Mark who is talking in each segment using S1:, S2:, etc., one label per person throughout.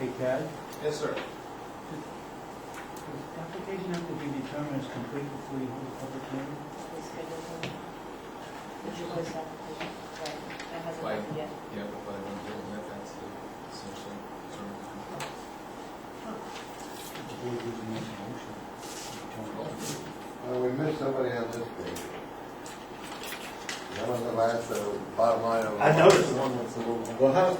S1: Hey, Ted,
S2: Yes, sir.
S1: does the application have to be determined as complete before you hold a public hearing?
S3: We scheduled one. The July seventh, right, that hasn't
S2: Why?
S3: happened yet.
S2: Yeah, but by one day, that, that's the essential term of compliance.
S1: The board doesn't make a motion. to determine.
S4: Oh.
S5: Uh, we missed somebody on this page. That was the last, uh, bottom line of.
S4: I noticed.
S5: The one that's a little.
S4: Well, how?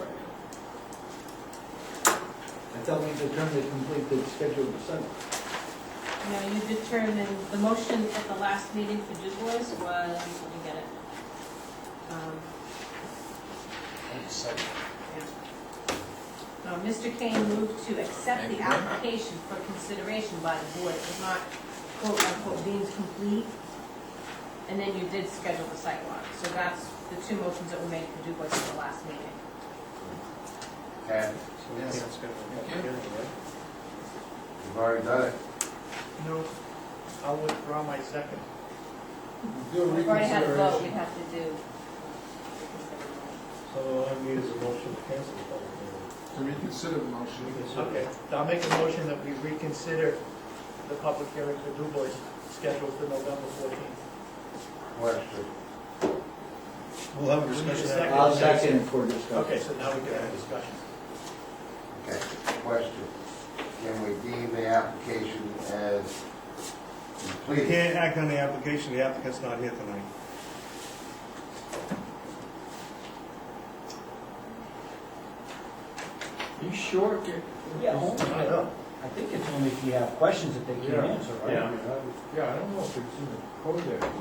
S4: I thought we determined to complete the schedule of seven.
S3: No, you determined, the motion at the last meeting for Dubois was, let me get it. Um, yeah. Uh, Mr. Kane moved to accept the application for consideration by the board. It was not quote unquote deemed complete. And then you did schedule the site walk. So that's the two motions that were made for Dubois at the last meeting.
S5: Ted,
S1: So we can't schedule a public
S2: Okay.
S1: hearing, right?
S5: you've already done it.
S6: No, I'll withdraw my second.
S4: Do a
S3: We've already had a vote, we
S4: reconsideration.
S3: have to do.
S6: So all I need is a motion to cancel the public hearing.
S2: To reconsider the motion.
S6: Okay, I'll make a motion that we reconsider the public hearing for DuBois scheduled for November fourteenth.
S5: Question.
S6: We'll have a discussion.
S4: I'll second for discussion.
S6: Okay, so now we can have a discussion.
S5: Okay, question. Can we deem the application as
S7: We
S5: completed?
S7: can't act on the application, the applicant's not here tonight.
S4: You sure?
S1: Yeah, only,
S6: I know.
S1: I think it's only if you have questions that they can
S2: Yeah.
S1: answer, right?
S2: Yeah. Yeah, I don't know if it's in the code there.
S6: I don't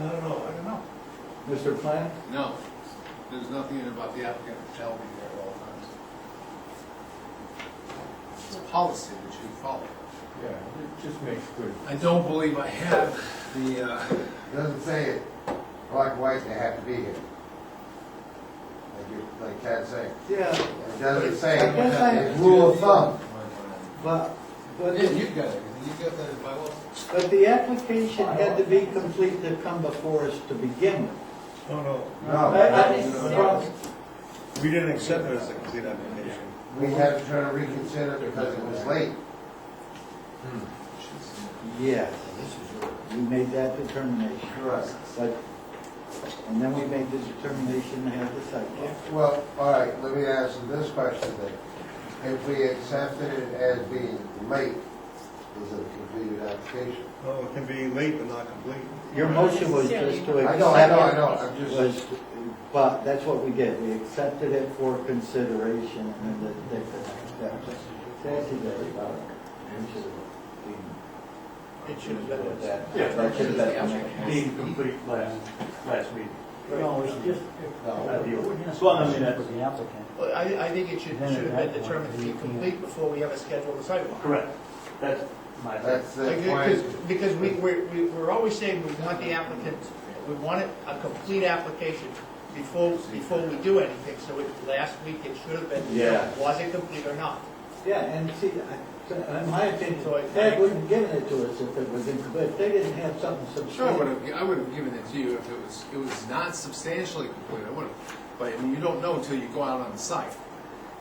S6: know, I don't know.
S4: Mr. Plant?
S2: No, there's nothing in about the applicant shall be there at all times. It's a policy that you follow.
S8: Yeah, it just makes good.
S2: I don't believe I have the, uh,
S5: Doesn't say it black, white, they have to be here. Like you, like Ted said.
S4: Yeah,
S5: It doesn't say,
S4: I guess I-
S5: it's rule of thumb.
S4: but, but,
S2: Yeah, you've got it, you've got that by law.
S4: but the application had to be complete to come before us to begin with. Uh,
S7: No, no,
S4: I-
S5: No,
S4: I-
S3: Unnecessarily.
S7: we didn't accept it as a complete application.
S5: we had to try to reconsider because it was late.
S4: Yes, we made that determination,
S5: Correct.
S4: but, and then we made the determination to have the site walk.
S5: Well, all right, let me ask you this question then. If we accepted it as being late, is it a completed application?
S7: No, it can be late but not complete.
S4: Your motion was just to accept.
S5: I know, I know, I know, I'm just.
S4: was, but that's what we did, we accepted it for consideration and then the, the, that's exactly about it. We should have
S6: It should have
S4: been-
S6: been.
S4: with that.
S8: Yeah,
S4: That should have been.
S8: Being complete last, last meeting.
S1: No, it's just,
S4: No.
S1: it's one of the, with the applicant.
S6: Well, I, I think it should,
S1: Then
S6: should have
S1: at that
S6: been determined to be
S1: point, we-
S6: complete before we ever schedule the sidewalk.
S8: Correct. That's my.
S5: That's the
S6: Like,
S5: point.
S6: Because because we, we're, we- we're always saying we want the applicant, we want it a complete application before, before we do anything, so it, last week it should have been,
S4: Yeah.
S6: was it complete or not?
S4: Yeah, and see, I- so, in my opinion, Ted wouldn't have given it to us if it was incomplete, if they didn't have something
S2: Sure, I would
S4: substantial.
S2: have, I would have given it to you if it was, it was not substantially complete, I would have. But I mean, you don't know until you go out on the site,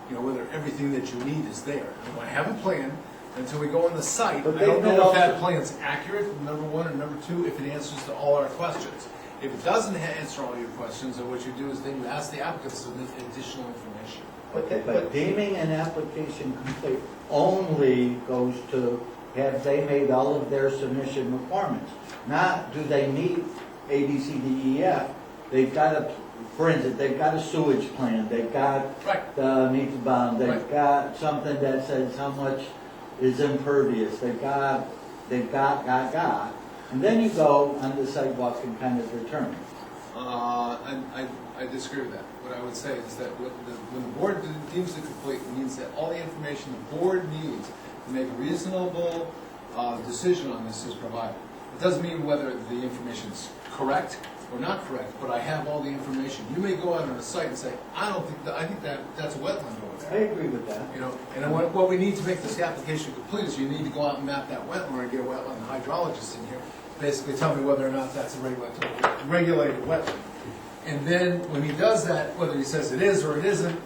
S2: you know, whether everything that you need is there. And I have a plan, until we go on the site,
S4: But
S2: I don't
S4: they- they
S2: know if that
S4: also-
S2: plan's accurate, number one, and number two, if it answers to all our questions. If it doesn't ha- answer all your questions, then what you do is then you ask the applicant to submit additional information.
S4: Okay, But deeming an application complete only goes to, have they made all of their submission requirements? Not, do they meet A, B, C, D, E, F? They've got a, for instance, they've got a sewage plan, they've got
S2: Right,
S4: the meets bound, they've
S2: Right.
S4: got something that says how much is impervious, they've got, they've got, got, got. And then you go on the sidewalk and kind of determine.
S2: Uh, I, I- I disagree with that. What I would say is that what the- when the board deems it complete, it means that all the information the board needs to make a reasonable uh, decision on this is provided. It doesn't mean whether the information's correct or not correct, but I have all the information. You may go out on a site and say, I don't think, that- I think that, that's a wetland over
S4: I
S2: there.
S4: agree with that.
S2: You know, and what, what we need to make this application complete is you need to go out and map that wetland or get a wetland hydrologist in here, basically tell me whether or not that's a regulated, regulated wetland. And then when he does that, whether he says it is or it isn't,